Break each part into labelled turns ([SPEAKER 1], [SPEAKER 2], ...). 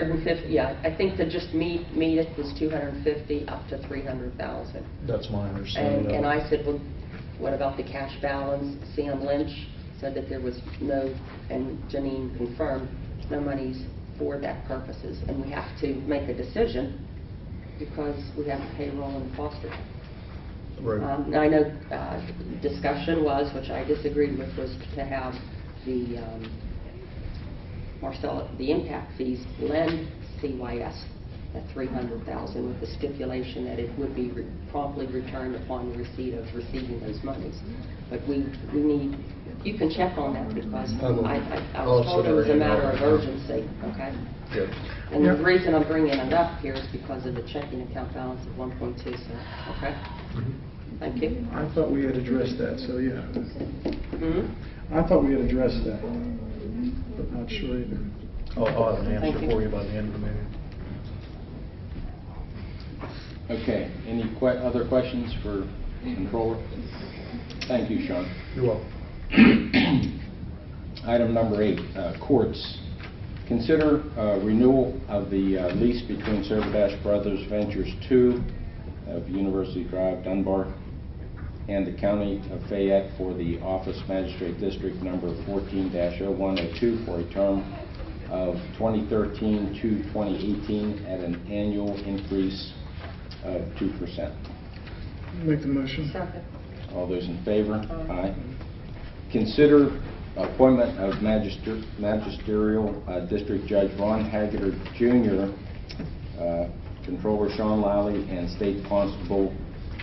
[SPEAKER 1] 250, yeah, I think to just meet, meet it was 250 up to 300,000.
[SPEAKER 2] That's my
[SPEAKER 1] And,
[SPEAKER 2] understanding. of it.
[SPEAKER 1] and I said, well, what about the cash balance? Sam Lynch said that there was no, and Janine confirmed, no monies for that purposes, and we have to make a decision because we have payroll and foster.
[SPEAKER 2] Right.
[SPEAKER 1] Um, and I know, uh, discussion was, which I disagreed with, was to have the, um, Marcella, the impact fees lend CYS at 300,000 with the stipulation that it would be re- promptly returned upon the receipt of receiving those monies. But we, we need, you can check on that because
[SPEAKER 2] I will.
[SPEAKER 1] I, I- I
[SPEAKER 2] I'll
[SPEAKER 1] was told it
[SPEAKER 2] send her
[SPEAKER 1] was a
[SPEAKER 2] an
[SPEAKER 1] matter of
[SPEAKER 2] email.
[SPEAKER 1] urgency, okay?
[SPEAKER 2] Yeah.
[SPEAKER 1] And the
[SPEAKER 3] Yeah.
[SPEAKER 1] reason I'm bringing it up here is because of the checking account balance of 1.2, so, okay? Thank you.
[SPEAKER 3] I thought we had addressed that, so yeah.
[SPEAKER 1] Hmm?
[SPEAKER 3] I thought we had addressed that, but not sure either.
[SPEAKER 2] I'll, I'll have an
[SPEAKER 1] Thank
[SPEAKER 2] answer
[SPEAKER 1] you.
[SPEAKER 2] for you by the end of the meeting.
[SPEAKER 4] Okay, any que, other questions for Controller? Thank you, Sean.
[SPEAKER 2] You're welcome.
[SPEAKER 4] Item number eight, uh, courts. Consider uh, renewal of the uh, lease between Servadash Brothers Ventures II of University Drive, Dunbar, and the County of Fayette for the Office Magistrate District Number 14-0102 for a term of 2013 to 2018 at an annual increase of 2%.
[SPEAKER 3] Make the motion.
[SPEAKER 1] Second.
[SPEAKER 4] All those in favor?
[SPEAKER 1] Aye.
[SPEAKER 4] Aye. Consider appointment of magister- magisterial uh, District Judge Ron Haggard Jr., uh, Controller Sean Lally, and State Constable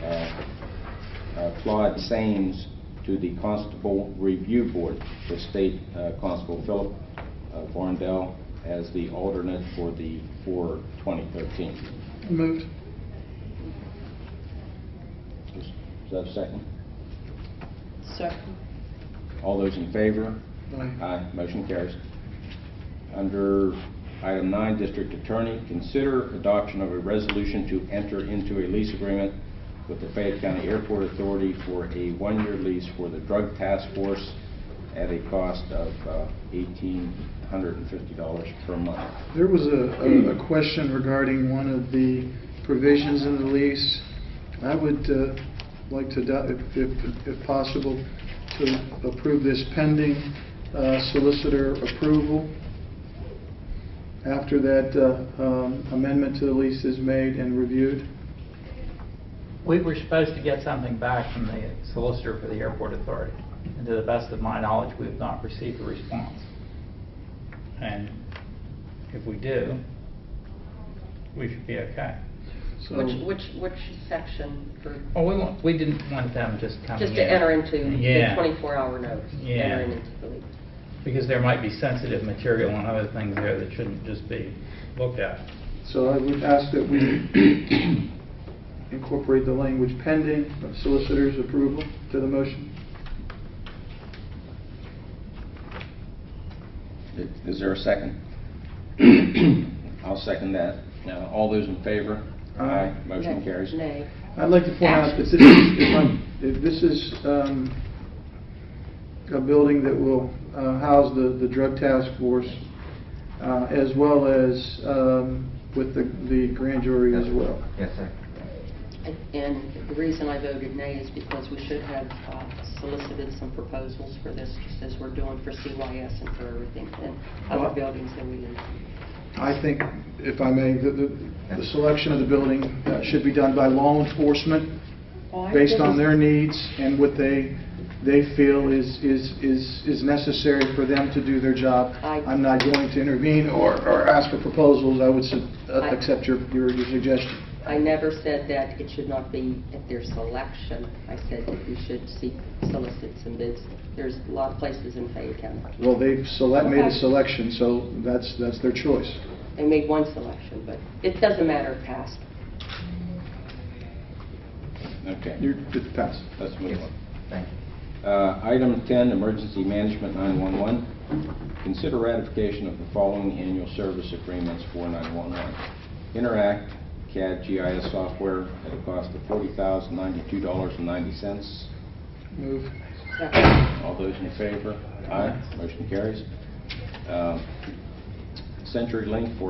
[SPEAKER 4] uh, uh, Claude Sames to the Constable Review Board with State uh, Constable Philip uh, Varndell as the alternate for the, for 2013.
[SPEAKER 3] Moved.
[SPEAKER 4] Is is that a second?
[SPEAKER 1] Second.
[SPEAKER 4] All those in favor?
[SPEAKER 3] Aye.
[SPEAKER 4] Aye, motion carries. Under item nine, District Attorney, consider adoption of a resolution to enter into a lease agreement with the Fayette County Airport Authority for a one-year lease for the Drug Task Force at a cost of uh, $1,850 per month.
[SPEAKER 3] There was a- a, a question regarding one of the provisions in the lease. I would uh, like to, adopt- if- if, if possible, to approve this pending uh, solicitor approval. After that uh, um, amendment to the lease is made and reviewed.
[SPEAKER 5] We were supposed to get something back from the solicitor for the airport authority, and to the best of my knowledge, we have not received a response. And if we do, we should be okay.
[SPEAKER 3] So-
[SPEAKER 1] Which, which, which section for,
[SPEAKER 5] Well, we want, we didn't want them just coming in.
[SPEAKER 1] just to enter into the
[SPEAKER 5] Yeah.
[SPEAKER 1] 24-hour notice?
[SPEAKER 5] Yeah.
[SPEAKER 1] entering into the lease.
[SPEAKER 5] Because there might be sensitive material and other things there that shouldn't just be looked at.
[SPEAKER 3] So I would ask that we incorporate the language pending of solicitor's approval to the motion.
[SPEAKER 4] Is there a second? I'll second that. Now, all those in favor?
[SPEAKER 3] Aye.
[SPEAKER 4] Motion
[SPEAKER 1] Nay.
[SPEAKER 4] carries.
[SPEAKER 1] Nay.
[SPEAKER 3] I'd like to point out that this is, if I'm- if this is um, a building that will uh, house the, the drug task force, uh, as well as um, with the, the grand jury as well.
[SPEAKER 6] Yes, sir.
[SPEAKER 1] And the reason I voted nay is because we should have uh, solicited some proposals for this, just as we're doing for CYS and for everything, and other
[SPEAKER 3] Well-
[SPEAKER 1] buildings that we need.
[SPEAKER 3] I think, if I may, the, the- the selection of the building uh, should be done by law enforcement, based on their needs and what they, they feel is, is, is is necessary for them to do their job.
[SPEAKER 1] I-
[SPEAKER 3] I'm not going to intervene or, or ask for proposals, I would su- uh,
[SPEAKER 1] I-
[SPEAKER 3] accept your, your your suggestion.
[SPEAKER 1] I never said that it should not be at their selection. I said that we should seek, solicit some bids. There's a lot of places in Fayette County.
[SPEAKER 3] Well, they've select, made a
[SPEAKER 1] Okay.
[SPEAKER 3] selection, so that's, that's their choice.
[SPEAKER 1] They made one selection, but it doesn't matter if passed.
[SPEAKER 4] Okay,
[SPEAKER 3] You're, it's passed.
[SPEAKER 4] let's move on.
[SPEAKER 6] Thank you.
[SPEAKER 4] Uh, Item 10, Emergency Management 911. Consider ratification of the following annual service agreements for 911. Interact CAD GIS software at a cost of $40,092.90.
[SPEAKER 3] Move.
[SPEAKER 4] All those in favor? Aye. Motion carries. Um, Uh, CenturyLink for